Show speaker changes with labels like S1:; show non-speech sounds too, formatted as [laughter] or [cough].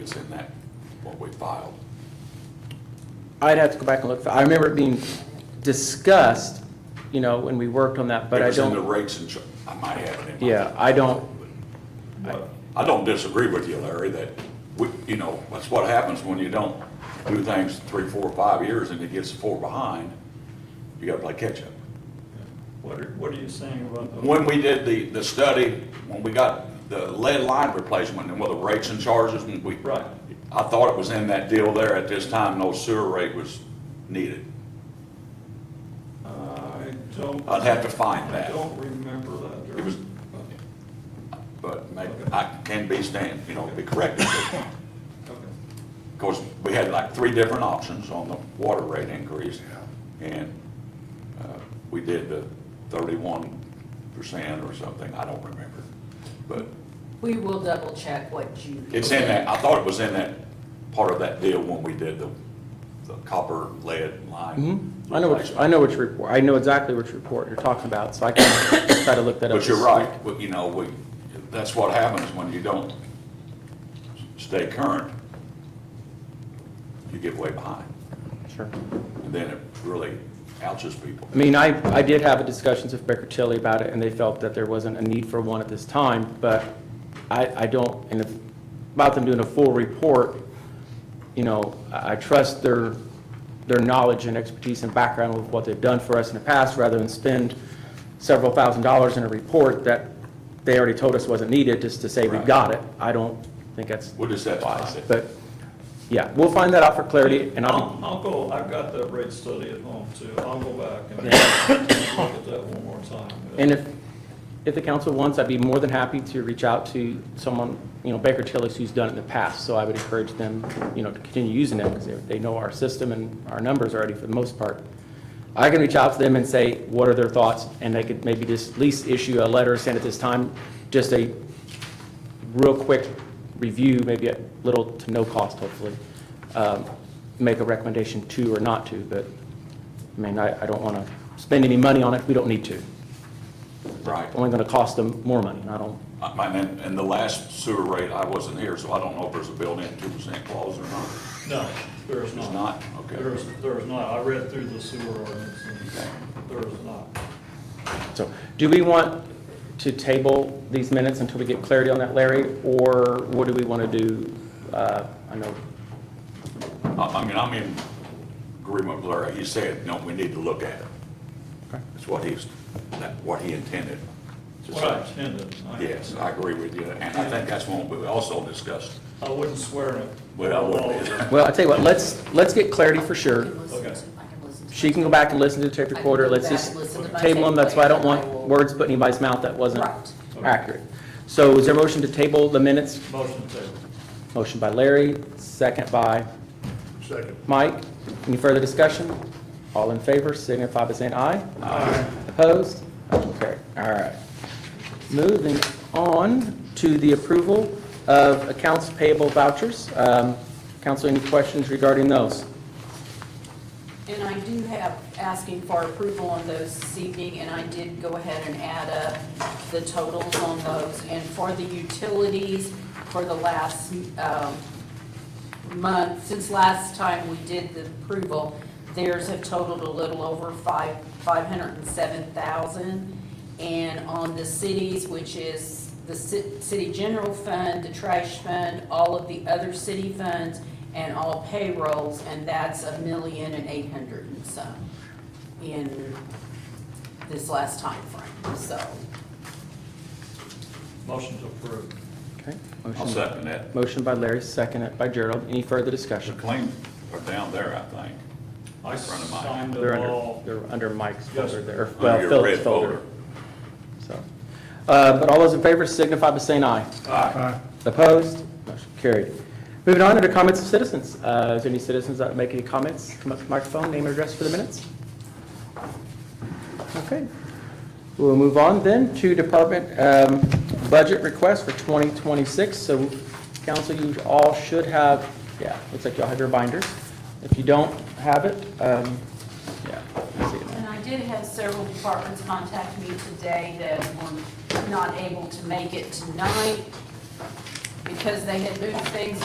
S1: It's in that, what we filed.
S2: I'd have to go back and look. I remember it being discussed, you know, when we worked on that, but
S1: It
S2: I
S1: was in the
S2: don't,
S1: rates and, char- I might have it in my.
S2: yeah, I don't,
S1: But I don't disagree with you, Larry, that we, you know, that's what happens when you don't do things three, four, five years and it gets four behind. You gotta play catch up.
S3: What are, what are you saying about the,
S1: When we did the, the study, when we got the lead line replacement and whether rates and charges and we.
S3: Right.
S1: I thought it was in that deal there. At this time, no sewer rate was needed.
S3: uh, I don't.
S1: I'd have to find
S3: I
S1: that.
S3: don't remember that.
S1: It was- But maybe, I can be stand, you know, be corrected.
S3: Okay.
S1: Because we had like three different options on the water rate increase. And uh, we did the thirty-one percent or something, I don't remember. But
S4: We will double check what you.
S1: it's in that, I thought it was in that, part of that deal when we did the, the copper lead line.
S2: hmm? Mm-hmm. I know which, I know which report, I know exactly which report you're talking about, so I can try to look that up.
S1: But you're
S2: this
S1: right, but you know, we, that's what happens when you don't stay current. You get way behind,
S2: week. Sure.
S1: and then it really ouches people.
S2: I mean, I, I did have discussions with Baker Tilly about it, and they felt that there wasn't a need for one at this time, but I, I don't, and if, about them doing a full report, you know, I I trust their, their knowledge and expertise and background with what they've done for us in the past, rather than spend several thousand dollars in a report that they already told us wasn't needed, just to say we
S1: Right.
S2: got it. I don't think that's
S1: What does that
S2: wise,
S1: cost?
S2: but, yeah, we'll find that out for clarity, and I'll,
S3: I'll, I'll go, I've got that rate study at home too. I'll go back and look at that one more time.
S2: And if, if the council wants, I'd be more than happy to reach out to someone, you know, Baker Tilly's who's done it in the past. So I would encourage them, you know, to continue using it because they, they know our system and our numbers already for the most part. I can reach out to them and say, what are their thoughts? And they could maybe just at least issue a letter, send at this time, just a real quick review, maybe at little to no cost hopefully. um, Make a recommendation to or not to, but, I mean, I, I don't want to spend any money on it if we don't need to
S1: Right.
S2: only going to cost them more money, and I don't,
S1: I mean, and, and the last sewer rate, I wasn't here, so I don't know if there's a built-in two percent clause or not.
S3: No, there is not.
S1: There's not, okay.
S3: There is, there is not. I read through the sewer ordinance and there is not.
S2: so, do we want to table these minutes until we get clarity on that, Larry? Or what do we want to do? Uh, I know,
S1: I, I mean, I'm in agreement with Larry, he said, no, we need to look at it. That's what he's, that, what he intended. to
S3: What I
S1: say.
S3: intended. I-
S1: Yes, I agree with you, and I think that's one we also discussed.
S3: I wouldn't swear to.
S1: Well, I wouldn't.
S2: well, I tell you what, let's, let's get clarity for
S4: I
S2: sure.
S4: can listen to-
S3: Okay.
S4: I can listen to-
S2: She can go back and listen to the tape
S4: I can
S2: recorder,
S4: go
S2: let's
S4: back
S2: just
S4: and listen to my
S2: table them,
S4: tape
S2: that's why I don't
S4: player,
S2: want
S4: and I will-
S2: words put in anybody's mouth that wasn't
S4: Right.
S2: accurate. So is there a motion to table the minutes?
S3: Motion table.
S2: Motion by Larry, second by
S5: Second.
S2: Mike, any further discussion? All in favor, signify by saying aye. Aye. Opposed? Motion carried. All right. Moving on to the approval of accounts payable vouchers. Um, Council, any questions regarding those?
S4: And I do have asking for approval on those this evening, and I did go ahead and add up the totals on those. And for the utilities, for the last um, month, since last time we did the approval, theirs have totaled a little over five, five hundred and seven thousand. And on the cities, which is the ci- city general fund, the trash fund, all of the other city funds, and all payrolls, and that's a million and eight hundred and some in this last time frame. so.
S3: Motion to approve.
S2: Okay.
S1: [laughs] I'll
S2: Motion.
S1: second that.
S2: Motion by Larry, seconded by Gerald. Any further
S1: The
S2: discussion?
S1: claims are down there, I think.
S3: I
S1: Front of mine.
S3: signed
S2: They're
S3: them
S2: under,
S3: all.
S2: they're under Mike's
S3: Yes.
S2: folder there,
S1: Under
S2: well,
S1: your red
S2: Phil's folder. So, uh, but all those in favor signify by saying aye.
S1: Aye.
S2: Opposed? Motion carried. Moving on to the comments of citizens. Uh, Is there any citizens that make any comments? Come up to the microphone, name and address for the minutes. Okay. We'll move on then to department um, budget request for 2026. So council, you all should have, yeah, looks like y'all have your binders. If you don't have it, um, yeah. I see it now.
S4: And I did have several departments contact me today that were not able to make it tonight because they had moved things